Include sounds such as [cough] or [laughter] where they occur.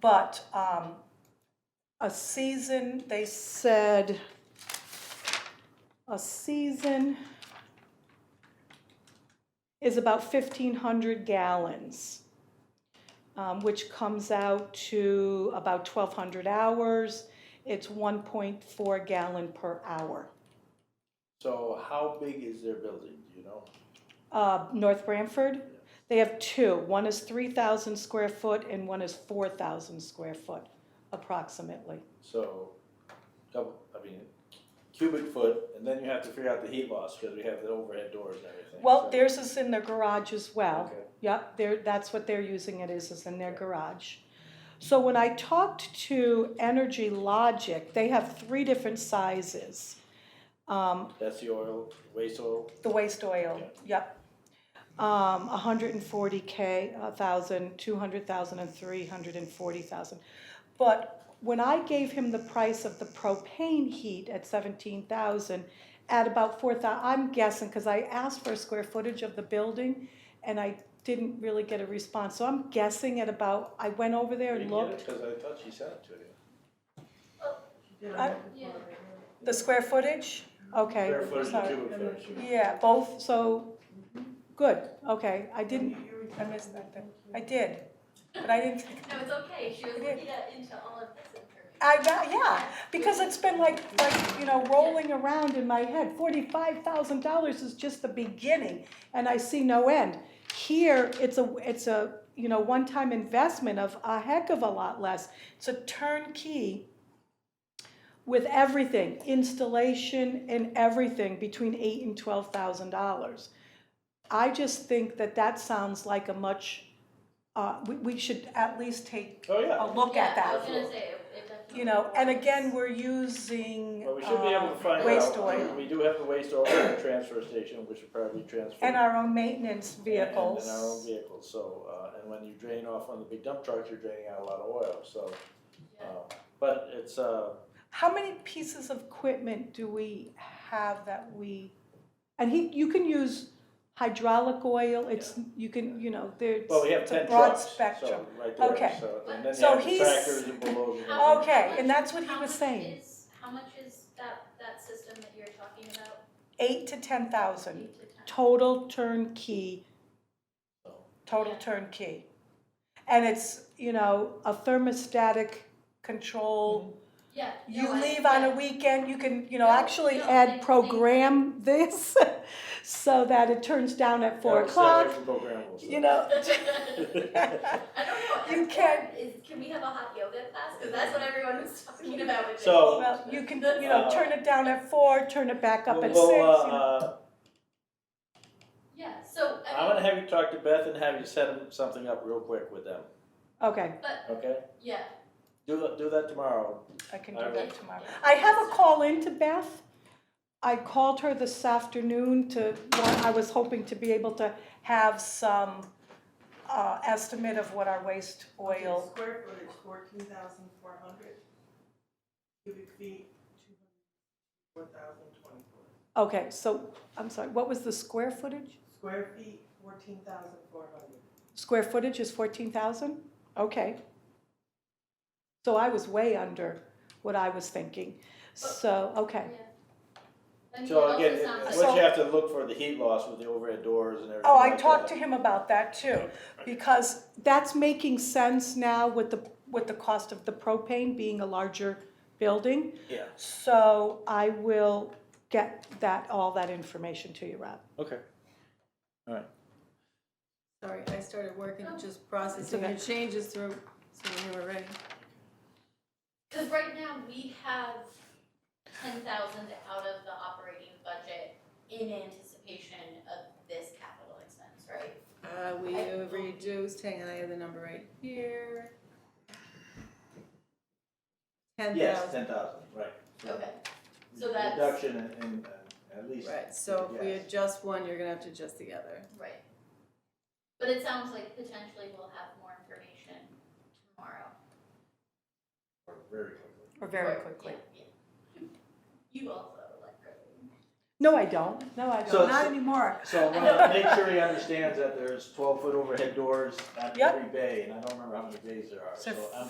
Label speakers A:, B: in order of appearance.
A: But um, a season, they said, a season is about fifteen hundred gallons, um, which comes out to about twelve hundred hours. It's one point four gallon per hour.
B: So how big is their building, do you know?
A: Uh, North Branford, they have two. One is three thousand square foot and one is four thousand square foot approximately.
B: So, double, I mean, cubic foot, and then you have to figure out the heat loss, because we have the overhead doors and everything.
A: Well,
B: so-
A: theirs is in their garage as well.
B: Okay.
A: Yep, they're, that's what they're using it is, is in their garage. So when I talked to Energy Logic, they have three different sizes. Um,
B: That's the oil, waste oil,
A: the waste oil, yep. Um, hundred and forty K, a thousand, two hundred thousand, and three hundred and forty thousand. But when I gave him the price of the propane heat at seventeen thousand, at about four thou, I'm guessing, cause I asked for a square footage of the building, and I didn't really get a response, so I'm guessing at about, I went over there
B: did
A: and
B: you get it?
A: looked.
B: Because I thought she sent it to you.
A: I- The square footage? Okay,
B: Square footage,
A: sorry.
B: cubic footage.
A: Yeah, both, so, good, okay, I didn't, I missed that thing. I did, but I didn't,
C: No, it's okay, she was looking at, into all of this information.
A: I got, yeah, because it's been like, like, you know, rolling around in my head. Forty-five thousand dollars is just the beginning, and I see no end. Here, it's a, it's a, you know, one-time investment of a heck of a lot less. It's a turnkey with everything, installation and everything, between eight and twelve thousand dollars. I just think that that sounds like a much, uh, we, we should at least take
B: Oh,
A: a
B: yeah,
A: look at that
C: Yeah, I was gonna say, it it definitely.
A: you know, and again,
C: was.
A: we're using
B: but we should be able to
A: um,
B: find out.
A: waste oil
B: We do have the waste oil at the transfer station, which should probably transfer.
A: and our own maintenance
B: And in our own
A: vehicles.
B: vehicles, so, uh, and when you drain off on the big dump trucks, you're draining out a lot of oil, so,
C: Yeah.
B: uh, but it's, uh,
A: How many pieces of equipment do we have that we, and he, you can use hydraulic oil, it's, you can, you know, there's
B: well, we have
A: it's a
B: ten
A: broad
B: trucks, so,
A: spectrum.
B: right there,
A: Okay.
B: so, and then you
A: So
B: have the
A: he's-
B: tractors and bulldozers. and-
C: How-
A: Okay,
C: how
A: and
C: much-
A: that's what he
C: how
A: was
C: much
A: saying.
C: is- How much is that, that system that you're talking about?
A: Eight to ten thousand,
C: Eight to ten?
A: total turnkey,
B: So-
A: total
C: Yeah.
A: turnkey. And it's, you know, a thermostatic
B: Mm-hmm.
A: control
C: Yeah.
A: You
C: no, I-
A: leave on a
C: yeah.
A: weekend, you can, you know,
C: No,
A: actually
C: no, I
A: add
C: think-
A: program this [laughs] so that it turns down at four
B: Yeah, we'll stay away
A: o'clock,
B: from programmable
A: you
B: stuff. [laughs]
C: [laughs]
A: know.
C: [laughs] I don't know.
A: You
C: at-
A: can-
C: Is, can we have a hot yoga class? Cause that's what everyone was talking about with it.
B: So-
A: Well, you can, you know, turn it down at four, turn it back up
B: Well,
A: at six.
B: well, uh,
A: you know.
B: uh,
C: Yeah, so, I
B: I'm
C: mean,
B: gonna have you talk to Beth and have you set 'em- something up real quick with them,
A: Okay,
B: okay?
C: yeah.
B: Do, tha- do that tomorrow,
A: I can do
B: Alright.
A: that tomorrow. I have a call in to Beth. I called her this afternoon to, well, I was hoping to be able to have some uh, estimate of what our waste
D: Okay,
A: oil,
D: Square footage, fourteen thousand four hundred. Cubic feet, two hundred, four thousand twenty-four.
A: okay, so, I'm sorry, what was the square footage?
D: Square feet, fourteen thousand four hundred.
A: Square footage is fourteen thousand? Okay. So I was way under what I was thinking, so, okay.
C: I mean, it
B: so
C: also
B: again, it-
C: sounds
B: once
C: like-
B: you
A: So-
B: have to look for the heat loss with the overhead doors and everything
A: Oh, I
B: like
A: talked to
B: that.
A: him about that too, because that's making sense now with the, with the cost of the propane being a larger building.
B: Yeah,
A: So I will get that, all that information to you, Rob.
B: okay.
E: Sorry, I started working, just
A: It's
E: processing
A: okay.
E: your changes through, so when you were ready.
C: Because right now we have ten thousand out of the operating budget in anticipation of this capital expense, right?
E: Uh, we
C: I-
E: have reduced, hang on, I have the number right here. Ten
B: Yes,
E: thousand,
B: ten thousand, right.
C: Okay, so that's, right,
B: Reduction in, in, uh, at least.
E: right, so if we
B: Yes.
E: adjust one, you're gonna have to adjust the other.
C: but it sounds like potentially we'll have more information tomorrow.
B: Or Very quickly.
A: Or
C: Or- yeah, yeah. You also like. growing.
A: No, I don't, no, I
B: So-
A: don't, not anymore.
B: So
A: [laughs]
B: I'm gonna make sure he understands that there's twelve foot overhead doors at
A: Yep.
B: every bay, and I don't remember how many bays there are,
A: So
B: so I'm